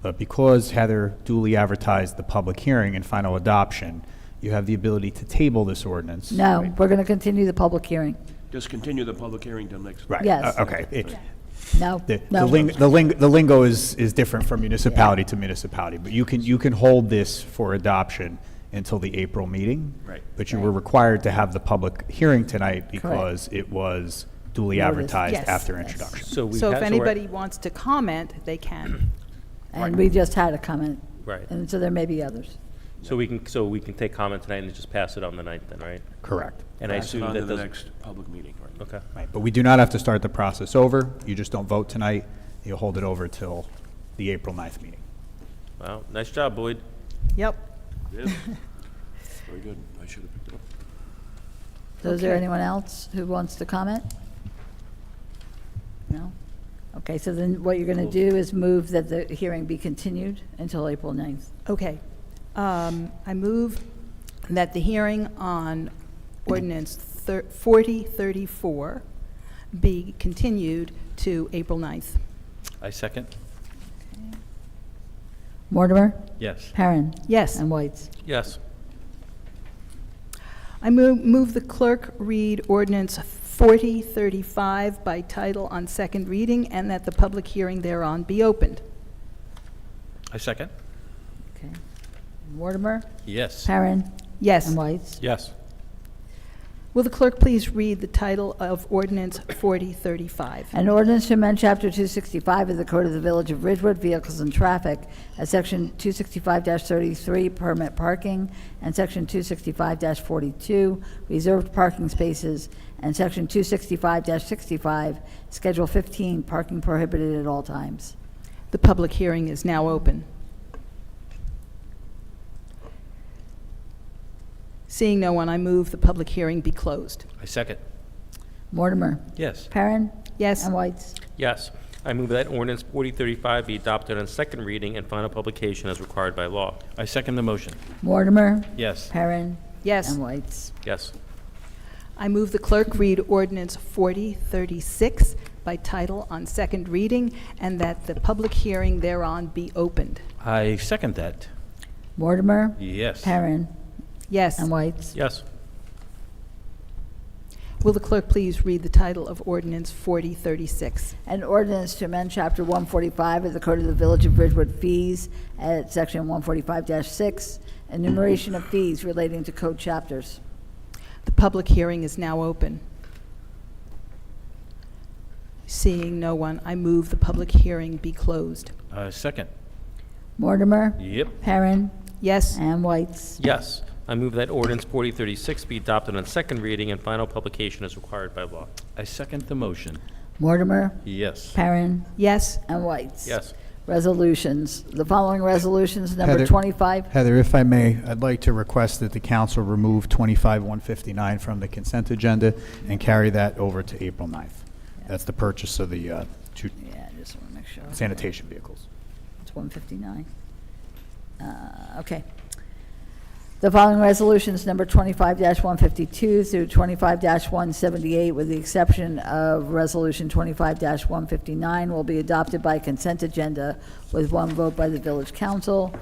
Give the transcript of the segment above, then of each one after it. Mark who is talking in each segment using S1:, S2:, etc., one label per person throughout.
S1: But because Heather duly advertised the public hearing and final adoption, you have the ability to table this ordinance.
S2: No, we're going to continue the public hearing.
S3: Just continue the public hearing till next.
S1: Right.
S2: Yes.
S1: uh, Okay. It-
S2: No,
S1: The the
S2: no.
S1: ling- the ling- the lingo is, is different from municipality to municipality, but you can, you can hold this for adoption until the April meeting.
S3: Right.
S1: But you were required to have the public hearing tonight because it was duly advertised
S4: Yes.
S1: after
S2: Yes.
S1: introduction.
S5: So we
S4: So
S5: have-
S4: if
S5: we're-
S4: anybody wants to comment, they can.
S2: And we just had a comment.
S5: Right.
S2: And so there may be others.
S5: So we can, so we can take comment tonight and just pass it on the ninth then, right?
S1: Correct.
S5: And I
S3: Pass it
S5: assume
S3: on to
S5: that
S3: the
S5: doesn't,
S3: next public meeting, right?
S5: okay.
S1: Right, but we do not have to start the process over. You just don't vote tonight. You'll hold it over till the April 9th meeting.
S5: Wow, nice job, Boyd.
S4: Yep.
S3: Very good. I should have picked it up.
S2: So is there
S4: Okay.
S2: anyone else who wants to comment? No? Okay, so then what you're going to do is move that the hearing be continued until April 9th.
S4: Okay. Um, I move that the hearing on ordinance thir- 4034 be continued to April 9th.
S5: I second.
S2: Mortimer,
S5: Yes.
S2: Perrin,
S4: Yes.
S2: and Whites.
S5: Yes.
S4: I mo- move the clerk read ordinance 4035 by title on second reading and that the public hearing thereon be opened.
S5: I second.
S2: Okay. Mortimer,
S5: Yes.
S2: Perrin,
S4: Yes.
S2: and Whites.
S5: Yes.
S4: Will the clerk please read the title of ordinance 4035?
S2: An ordinance to amend Chapter 265 of the Code of the Village of Ridgewood, Vehicles and Traffic, at Section 265-33, Permit Parking, and Section 265-42, Reserved Parking Spaces, and Section 265-65, Schedule 15, Parking Prohibited at All Times.
S4: The public hearing is now open. Seeing no one, I move the public hearing be closed.
S5: I second.
S2: Mortimer,
S5: Yes.
S2: Perrin,
S4: Yes.
S2: and Whites.
S5: Yes. I move that ordinance 4035 be adopted on second reading and final publication as required by law.
S6: I second the motion.
S2: Mortimer,
S6: Yes.
S2: Perrin,
S4: Yes.
S2: and Whites.
S5: Yes.
S4: I move the clerk read ordinance 4036 by title on second reading and that the public hearing thereon be opened.
S6: I second that.
S2: Mortimer,
S6: Yes.
S2: Perrin,
S4: Yes.
S2: and Whites.
S5: Yes.
S4: Will the clerk please read the title of ordinance 4036?
S2: An ordinance to amend Chapter 145 of the Code of the Village of Ridgewood fees at Section 145-6, enumeration of fees relating to code chapters.
S4: The public hearing is now open. Seeing no one, I move the public hearing be closed.
S6: I second.
S2: Mortimer,
S6: Yep.
S2: Perrin,
S4: Yes.
S2: and Whites.
S5: Yes. I move that ordinance 4036 be adopted on second reading and final publication as required by law.
S6: I second the motion.
S2: Mortimer,
S6: Yes.
S2: Perrin,
S4: Yes.
S2: and Whites.
S5: Yes.
S2: Resolutions. The following resolutions, number
S1: Heather.
S2: 25.
S1: Heather, if I may, I'd like to request that the council remove 25-159 from the consent agenda and carry that over to April 9th. That's the purchase of the uh, two
S2: Yeah, I just want to make sure.
S1: sanitation vehicles.
S2: It's 159. Uh, Okay. The following resolutions, number 25-152 through 25-178, with the exception of Resolution 25-159, will be adopted by consent agenda with one vote by the village council.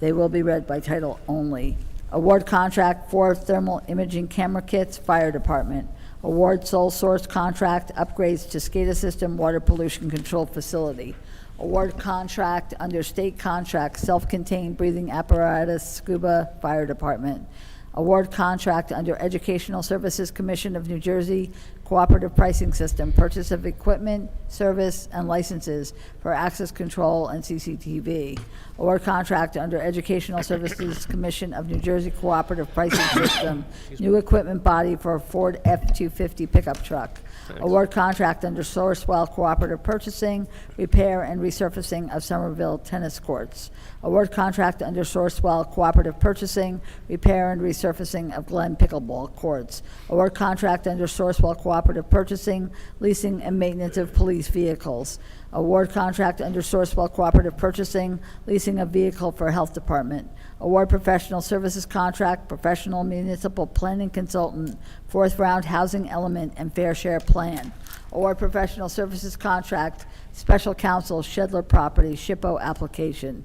S2: They will be read by title only. Award contract for thermal imaging camera kits, fire department. Award sole source contract upgrades to SCADA system, water pollution control facility. Award contract under state contract, self-contained breathing apparatus, scuba fire department. Award contract under Educational Services Commission of New Jersey Cooperative Pricing System, purchase of equipment, service, and licenses for access control and CCTV. Award contract under Educational Services Commission of New Jersey Cooperative Pricing System, new equipment body for Ford F-250 pickup truck. Award contract under Sourcewell Cooperative Purchasing, repair and resurfacing of Somerville tennis courts. Award contract under Sourcewell Cooperative Purchasing, repair and resurfacing of Glen pickleball courts. Award contract under Sourcewell Cooperative Purchasing, leasing and maintenance of police vehicles. Award contract under Sourcewell Cooperative Purchasing, leasing a vehicle for Health Department. Award professional services contract, professional municipal planning consultant, fourth round housing element and fair share plan. Award professional services contract, special counsel Shedler Property, SHPO application.